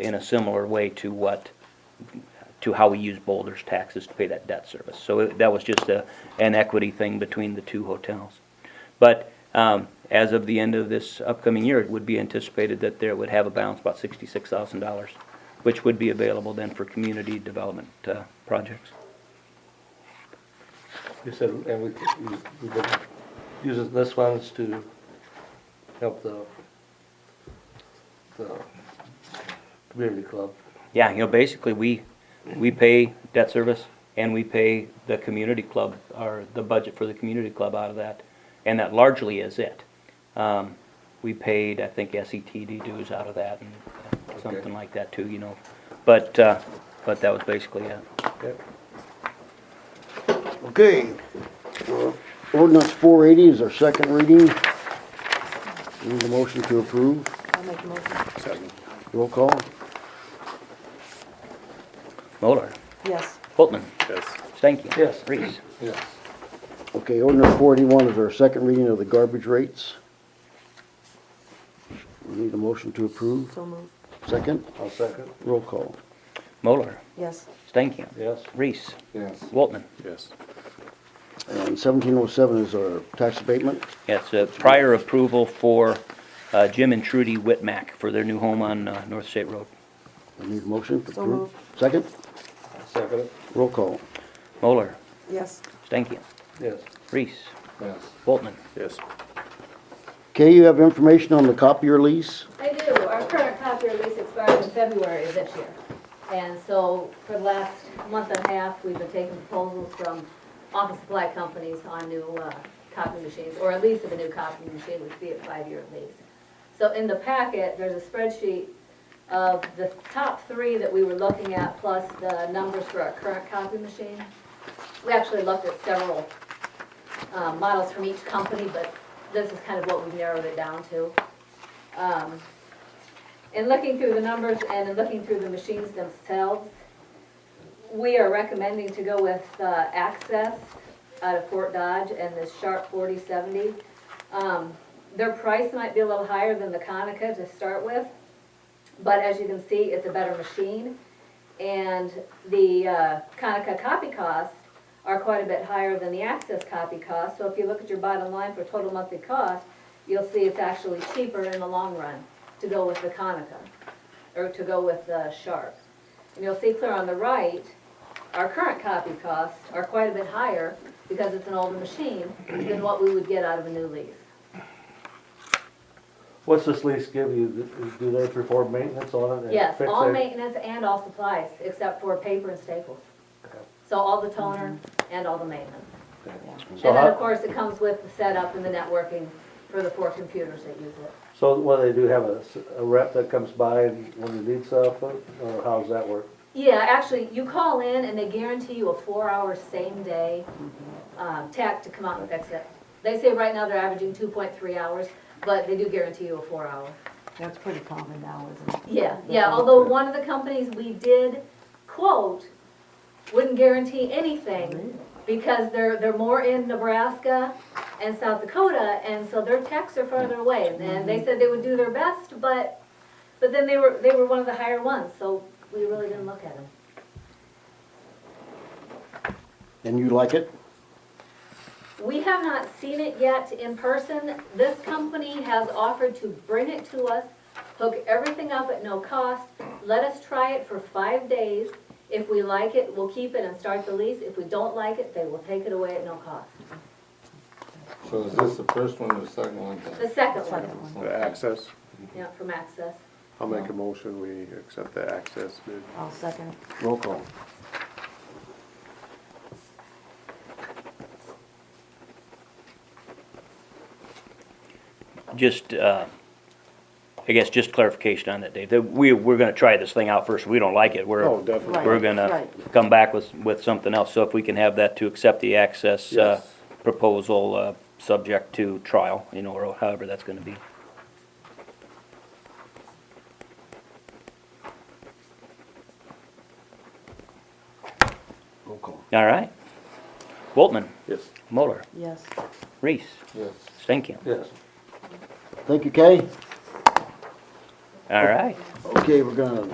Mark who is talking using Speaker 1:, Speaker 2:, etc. Speaker 1: in a similar way to what, to how we use Boulder's taxes to pay that debt service. So it- that was just a, an equity thing between the two hotels. But um, as of the end of this upcoming year, it would be anticipated that there would have a balance about sixty-six thousand dollars, which would be available then for community development uh, projects.
Speaker 2: You said, and we, we- we've been using this funds to help the, the community club.
Speaker 1: Yeah, you know, basically, we, we pay debt service and we pay the community club, or the budget for the community club out of that. And that largely is it. Um, we paid, I think, SETD dues out of that and something like that too, you know. But, uh, but that was basically it.
Speaker 2: Yep.
Speaker 3: Okay. Uh, Ordinance four eighty is our second reading. Need a motion to approve.
Speaker 4: I'll make a motion.
Speaker 3: Roll call.
Speaker 1: Moller,
Speaker 4: Yes,
Speaker 1: Boltman,
Speaker 5: Yes.
Speaker 1: Stanky.
Speaker 2: Yes.
Speaker 1: Reese.
Speaker 2: Yes.
Speaker 3: Okay, ordinance four eighty-one is our second reading of the garbage rates. We Need a motion to approve.
Speaker 4: so moved.
Speaker 3: Second,
Speaker 2: I'll second.
Speaker 3: roll call.
Speaker 1: Moller,
Speaker 4: Yes,
Speaker 1: Stanky.
Speaker 2: Yes.
Speaker 1: Reese.
Speaker 2: Yes.
Speaker 1: Boltman.
Speaker 5: Yes.
Speaker 3: And seventeen oh seven is our tax abatement.
Speaker 1: Yeah, it's a prior approval for uh, Jim and Trudy Whitmack for their new home on uh, North State Road.
Speaker 3: I need a motion to
Speaker 4: So
Speaker 3: approve.
Speaker 4: moved.
Speaker 3: Second,
Speaker 2: I'll second it.
Speaker 3: roll call.
Speaker 1: Moller,
Speaker 4: yes,
Speaker 1: Stanky.
Speaker 2: Yes.
Speaker 1: Reese.
Speaker 2: Yes.
Speaker 1: Boltman.
Speaker 5: Yes.
Speaker 3: Kay, you have information on the copier lease?
Speaker 6: I do. Our current copier lease expires in February of this year. And so for the last month and a half, we've been taking proposals from office supply companies on new uh, copy machines, or a lease of a new copy machine, which would be a five-year lease. So in the packet, there's a spreadsheet of the top three that we were looking at, plus the numbers for our current copy machine. We actually looked at several uh, models from each company, but this is kind of what we've narrowed it down to. Um, In looking through the numbers and in looking through the machines themselves, we are recommending to go with uh, Access out of Fort Dodge and the Sharp 4070. Um, Their price might be a little higher than the Konica to start with, but as you can see, it's a better machine. And the uh, Konica copy costs are quite a bit higher than the Access copy cost. So if you look at your bottom line for total monthly cost, you'll see it's actually cheaper in the long run to go with the Konica, or to go with the Sharp. And you'll see clear on the right, our current copy costs are quite a bit higher because it's an older machine than what we would get out of a new lease.
Speaker 2: What's this lease give you? Do they perform maintenance on it? and
Speaker 6: Yes,
Speaker 2: fix
Speaker 6: all
Speaker 2: it?
Speaker 6: maintenance and all supplies, except for paper and staples. So all the toner and all the maintenance. And
Speaker 2: So
Speaker 6: then, of
Speaker 2: how,
Speaker 6: course, it comes with the setup and the networking for the four computers that use it.
Speaker 2: so what, they do have a, s- a rep that comes by and when they need stuff, or or how does that work?
Speaker 6: Yeah, actually, you call in and they guarantee you a four-hour same-day
Speaker 2: Mm-hmm.
Speaker 6: um, tech to come out and fix it. They say right now they're averaging two point three hours, but they do guarantee you a four-hour.
Speaker 4: that's pretty common now, isn't it?
Speaker 6: Yeah, yeah, although one of the companies we did quote wouldn't guarantee anything because they're, they're more in Nebraska and South Dakota, and so their techs are farther away. And they said they would do their best, but, but then they were, they were one of the higher ones, so we really didn't look at them.
Speaker 3: And you like it?
Speaker 6: We have not seen it yet in person. This company has offered to bring it to us, hook everything up at no cost, let us try it for five days. If we like it, we'll keep it and start the lease. If we don't like it, they will take it away at no cost.
Speaker 7: So is this the first one or the second one?
Speaker 6: The second
Speaker 4: Second
Speaker 6: one,
Speaker 4: one.
Speaker 5: The access,
Speaker 6: yeah, from Access.
Speaker 5: I'll make a motion, we accept the access bid.
Speaker 4: I'll second it.
Speaker 3: Roll call.
Speaker 1: Just, uh, I guess, just clarification on that, Dave. That we, we're gonna try this thing out first. If we don't like it, we're,
Speaker 5: Oh, definitely.
Speaker 1: we're gonna
Speaker 4: right.
Speaker 1: come back with, with something else. So if we can have that to accept the access, uh,
Speaker 5: Yes.
Speaker 1: proposal, uh, subject to trial, you know, or however that's gonna be.
Speaker 3: Roll call.
Speaker 1: All right. Boltman,
Speaker 5: Yes.
Speaker 1: Moller,
Speaker 4: Yes,
Speaker 1: Reese,
Speaker 7: Yes.
Speaker 1: Stankin.
Speaker 2: Yes.
Speaker 3: Thank you, Kay.
Speaker 1: All right.
Speaker 3: Okay, we're gonna